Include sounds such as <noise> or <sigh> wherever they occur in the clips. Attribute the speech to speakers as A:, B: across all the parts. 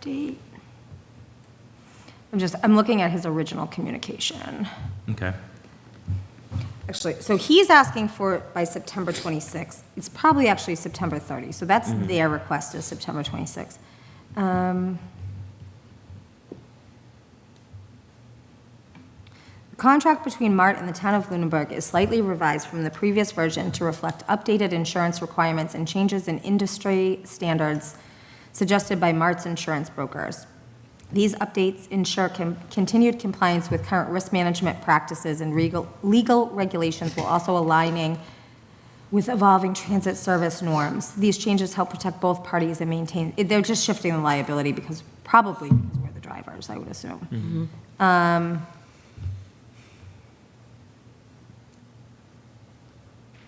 A: date? I'm just, I'm looking at his original communication.
B: Okay.
A: Actually, so he's asking for it by September 26th. It's probably actually September 30th, so that's their request is September 26th. Um, The contract between MART and the town of Lunenburg is slightly revised from the previous version to reflect updated insurance requirements and changes in industry standards suggested by MART's insurance brokers. These updates ensure com- continued compliance with current risk management practices and regal- legal regulations while also aligning with evolving transit service norms. These changes help protect both parties and maintain, they're just shifting the liability because, probably because we're the drivers, I would assume. Um,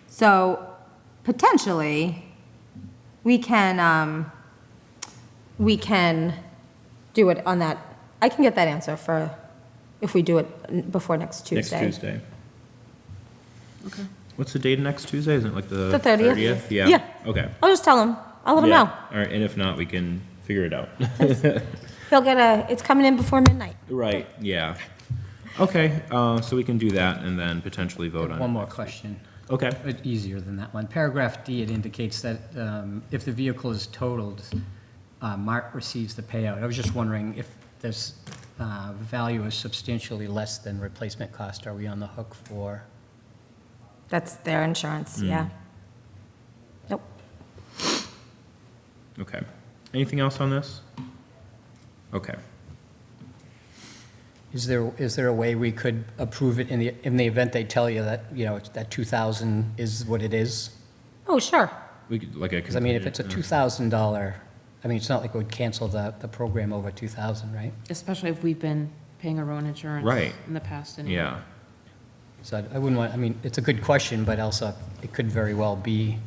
A: So potentially, we can, um, we can do it on that, I can get that answer for, if we do it n- before next
B: Next
A: Tuesday.
B: Tuesday. Okay. What's the date of next Tuesday? Isn't it like the?
A: The 30th?
B: Yeah.
A: Yeah.
B: Okay.
A: I'll just tell him, I'll let him
B: Yeah.
A: know.
B: All right, and if not, we can figure it out. <laughs>
A: He'll get a, it's coming in before midnight.
B: Right, yeah. Okay, uh, so we can do that and then potentially vote on it.
C: One more question,
B: Okay,
C: uh, easier than that one. Paragraph D, it indicates that um, if the vehicle is totaled, uh, Mart receives the payout. I was just wondering if this uh, value is substantially less than replacement cost, are we on the hook for?
A: That's their insurance,
B: Mm.
A: yeah. Nope.
B: okay. Anything else on this? Okay.
C: Is there, is there a way we could approve it in the, in the event they tell you that, you know, it's- that 2,000 is what it is?
A: Oh, sure.
B: We could, like a.
C: Because I mean, if it's a $2,000, I mean, it's not like we'd cancel the, the program over 2,000, right?
D: Especially if we've been paying our own insurance.
B: Right.
D: In the past anyway.
B: Yeah,
C: So I- I wouldn't want, I mean, it's a good question, but also it could very well be,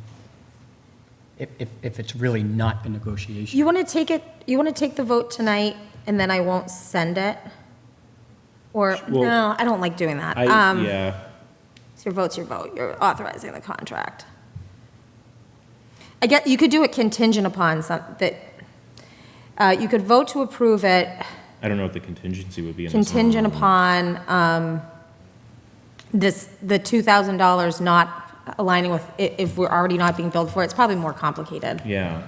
C: if, if, if it's really not a negotiation.
A: You want to take it, you want to take the vote tonight, and then I won't send it? Or,
B: Well,
A: no, I don't like doing that.
B: I,
A: Um,
B: yeah,
A: So your vote's your vote, you're authorizing the contract. I get, you could do it contingent upon some, that, uh, you could vote to approve it
B: I don't know what the contingency would be in this one.
A: contingent upon um, this, the $2,000 not aligning with, i- if we're already not being billed for it, it's probably more complicated.
B: Yeah,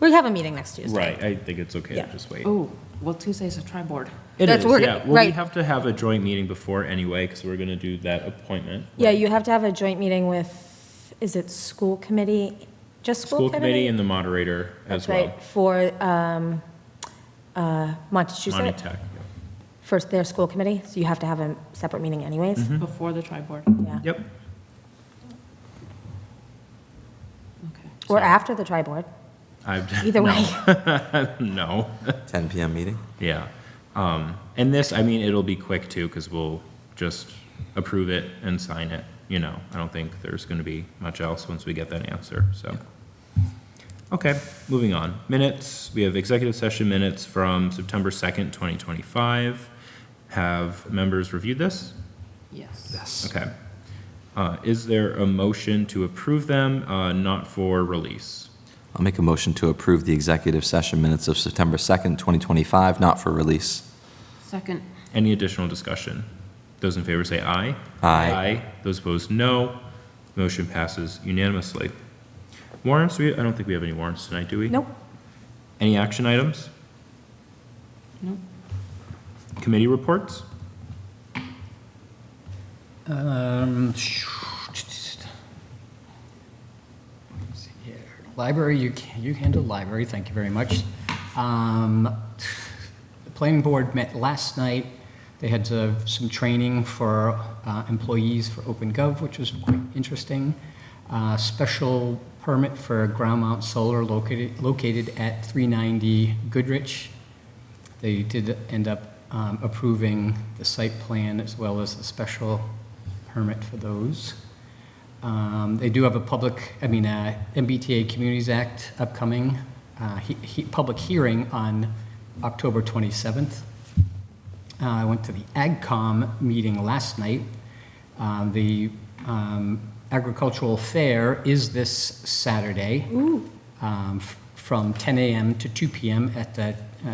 A: We have a meeting next Tuesday.
B: right, I think it's okay to
A: Yeah.
B: just wait.
D: Oh, well, Tuesday's a tri board.
B: It
A: That's
B: is,
A: where-
B: yeah. Well, we
A: right.
B: have to have a joint meeting before anyway, because we're gonna do that appointment.
A: Yeah, you have to have a joint meeting with, is it school committee? Just
B: School committee and the moderator as
A: That's
B: well.
A: right, for um, uh,
B: Monty
A: Montechusett,
B: Tech.
A: for their school committee, so you have to have a separate meeting anyways.
B: Hmm?
D: Before the tri board.
A: Yeah.
B: Yep,
D: Okay.
A: Or after the tri-board,
B: I, <laughs>
A: either way.
B: no,
E: 10 PM meeting?
B: yeah. Um, and this, I mean, it'll be quick too, because we'll just approve it and sign it, you know. I don't think there's gonna be much else once we get that answer, so. Okay, moving on. Minutes, we have executive session minutes from September second, twenty twenty-five. Have members reviewed this?
D: Yes.
B: Okay. Uh, Is there a motion to approve them, uh, not for release?
E: I'll make a motion to approve the executive session minutes of September 2nd, 2025, not for release.
D: Second,
B: Any additional discussion? Those in favor say aye.
E: Aye.
B: Aye. Those opposed, no. Motion passes unanimously. Warrants, we, I don't think we have any warrants tonight, do we?
A: Nope.
B: Any action items?
D: No.
B: Committee reports?
C: Um, Library, you, can- you handled library, thank you very much. Um, The planning board met last night. They had uh, some training for uh, employees for OpenGov, which was quite interesting. Uh, Special permit for ground mount solar located, located at 390 Goodrich. They did end up um, approving the site plan as well as a special permit for those. Um, They do have a public, I mean, uh, MBTA Communities Act upcoming, uh, he- he- public hearing on October 27th. Uh, I went to the AgCom meeting last night. Uh, The um, agricultural fair is this Saturday um, f- from 10 a.m. to 2 p.m. at the uh,